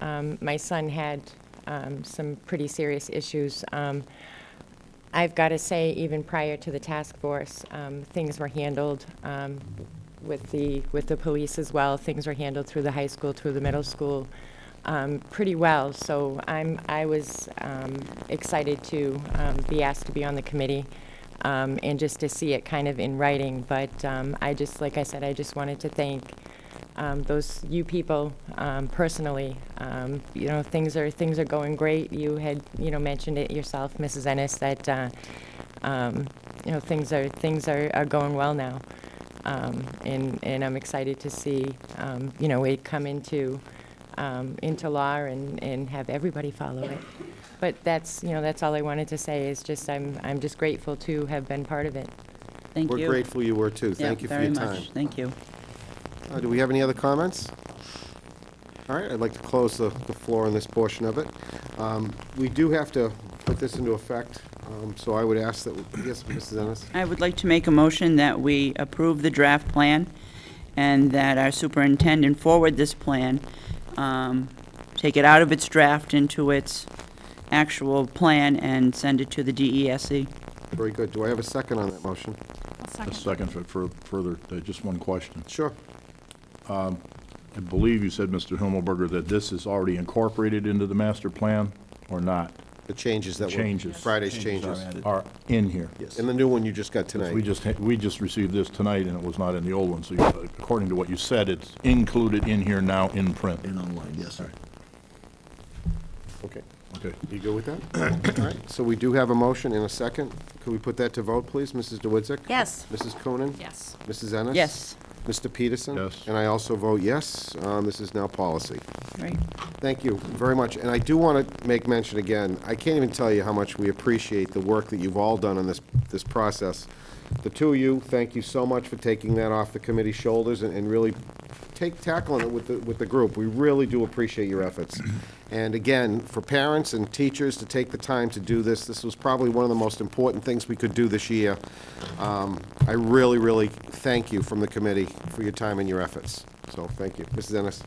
Um, My son had um, some pretty serious issues. Um, I've got to say, even prior to the task force, um, things were handled um, with the, with the police as well. Things were handled through the high school, through the middle school, um, pretty well. So I'm, I was um, excited to um, be asked to be on the committee um, and just to see it kind of in writing. But um, I just, like I said, I just wanted to thank um, those you people um, personally. Um, you know, things are things are going great. You had you know mentioned it yourself, Mrs. Ennis, that uh, um, you know things are things are, are going well now, um, and and I'm excited to see um, you know it come into um, into law and, and have everybody follow it. But that's you know that's all I wanted to say is just I'm I'm just grateful to have been part of it. Thank you. We're grateful you were too. Yeah, Thank you for your Very time. much, thank you. Uh, Do we have any other comments? All right, I'd like to close the the floor on this portion of it. Um, We do have to put this into effect, um, so I would ask that, yes, Mrs. Ennis? I would like to make a motion that we approve the draft plan and that our superintendent forward this plan, um, take it out of its draft into its actual plan and send it to the E DESE. Very good. Do I have a second on that motion? A second for- for further, uh, just one question. Sure. I believe you said, Mr. Himmelberger, that this is already incorporated into the master plan or not? The changes that were... Changes. Friday's changes. Are in here? And the new one you just got tonight. We just, ha- we just received this tonight and it was not in the old one, so you- according to what you said, it's included in here now in print. In online, yes, sir. Okay. Okay. You go with that? All right, so we do have a motion and a second. Could we put that to vote, please? Mrs. DeWitzik? Yes. Mrs. Coonan? Yes. Mrs. Ennis? Yes, Mr. Peterson? Yes. And I also vote yes. Um, This is now policy. right, Thank you very much. And I do want to make mention again, I can't even tell you how much we appreciate the work that you've all done on this, this process. The two of you, thank you so much for taking that off the committee's shoulders and, and really take, tackling it with the, with the group. We really do appreciate your efforts. And again, for parents and teachers to take the time to do this, this was probably one of the most important things we could do this year. Um, I really, really thank you from the committee for your time and your efforts. So, thank you. Mrs. Ennis?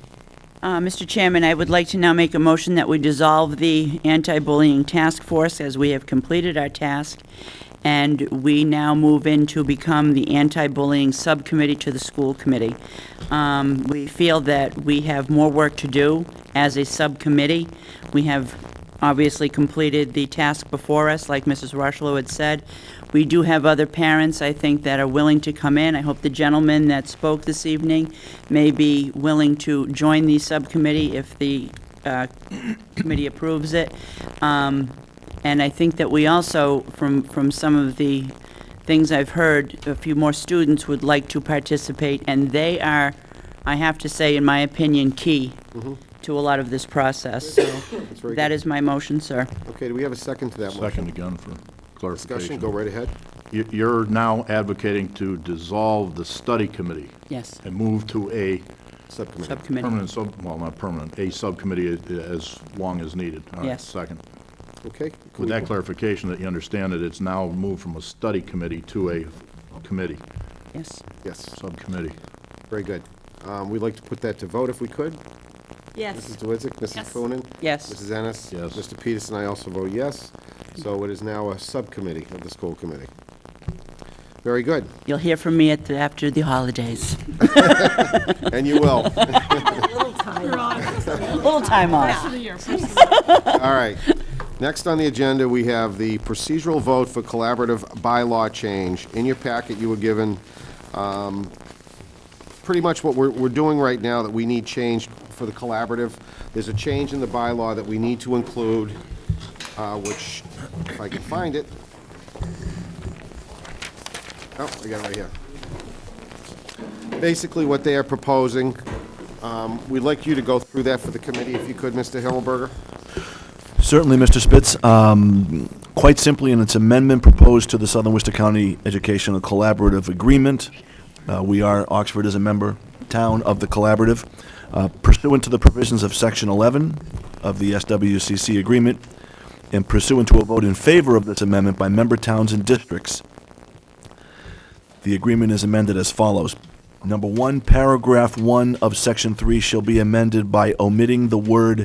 Uh, Mr. Chairman, I would like to now make a motion that we dissolve the anti-bullying task force as we have completed our task, and we now move in to become the anti-bullying subcommittee to the school committee. Um, We feel that we have more work to do as a subcommittee. We have obviously completed the task before us, like Mrs. Rushlow had said. We do have other parents, I think, that are willing to come in. I hope the gentleman that spoke this evening may be willing to join the subcommittee if the uh, committee approves it. Um, And I think that we also, from, from some of the things I've heard, a few more students would like to participate, and they are, I have to say, in my opinion, key to a lot of this process. So Mm-hmm. very that good. is my motion, sir. Okay, do we have a second to that motion? Second again for Discussion, clarification. go right ahead. You- You're now advocating to dissolve the study committee Yes, and move to a Subcommittee. subcommittee. Permanent sub, well, not permanent, a subcommittee a- as long as needed. All right, Yes. Second. Okay? can With we- that clarification, that you understand that it's now moved from a study committee to a committee, Yes. Yes, subcommittee. very good. Um, We'd like to put that to vote if we could. Mrs. Yes. DeWitzik, Mrs. Yes. Coonan? Yes. Mrs. Ennis? Yes. Mr. Peterson, I also vote yes. So it is now a subcommittee of the school committee. Very good, You'll hear from me at the, after the holidays. and you will. You're on. A little time off. First of the year, first of the year. All right. Next on the agenda, we have the procedural vote for collaborative bylaw change. In your packet, you were given um, pretty much what we're we're doing right now that we need change for the collaborative. There's a change in the bylaw that we need to include, uh, which, if I can find it. Oh, I got it right here basically what they are proposing. Um, We'd like you to go through that for the committee, if you could, Mr. Himmelberger. Certainly, Mr. Spitz. Um, Quite simply, in its amendment proposed to the Southern Worcester County Educational Collaborative Agreement, uh, we are, Oxford is a member town of the collaborative. Uh, Pursuant to the provisions of Section 11 of the SWCC agreement, and pursuant to a vote in favor of this amendment by member towns and districts, the agreement is amended as follows. Number one, paragraph one of section three shall be amended by omitting the word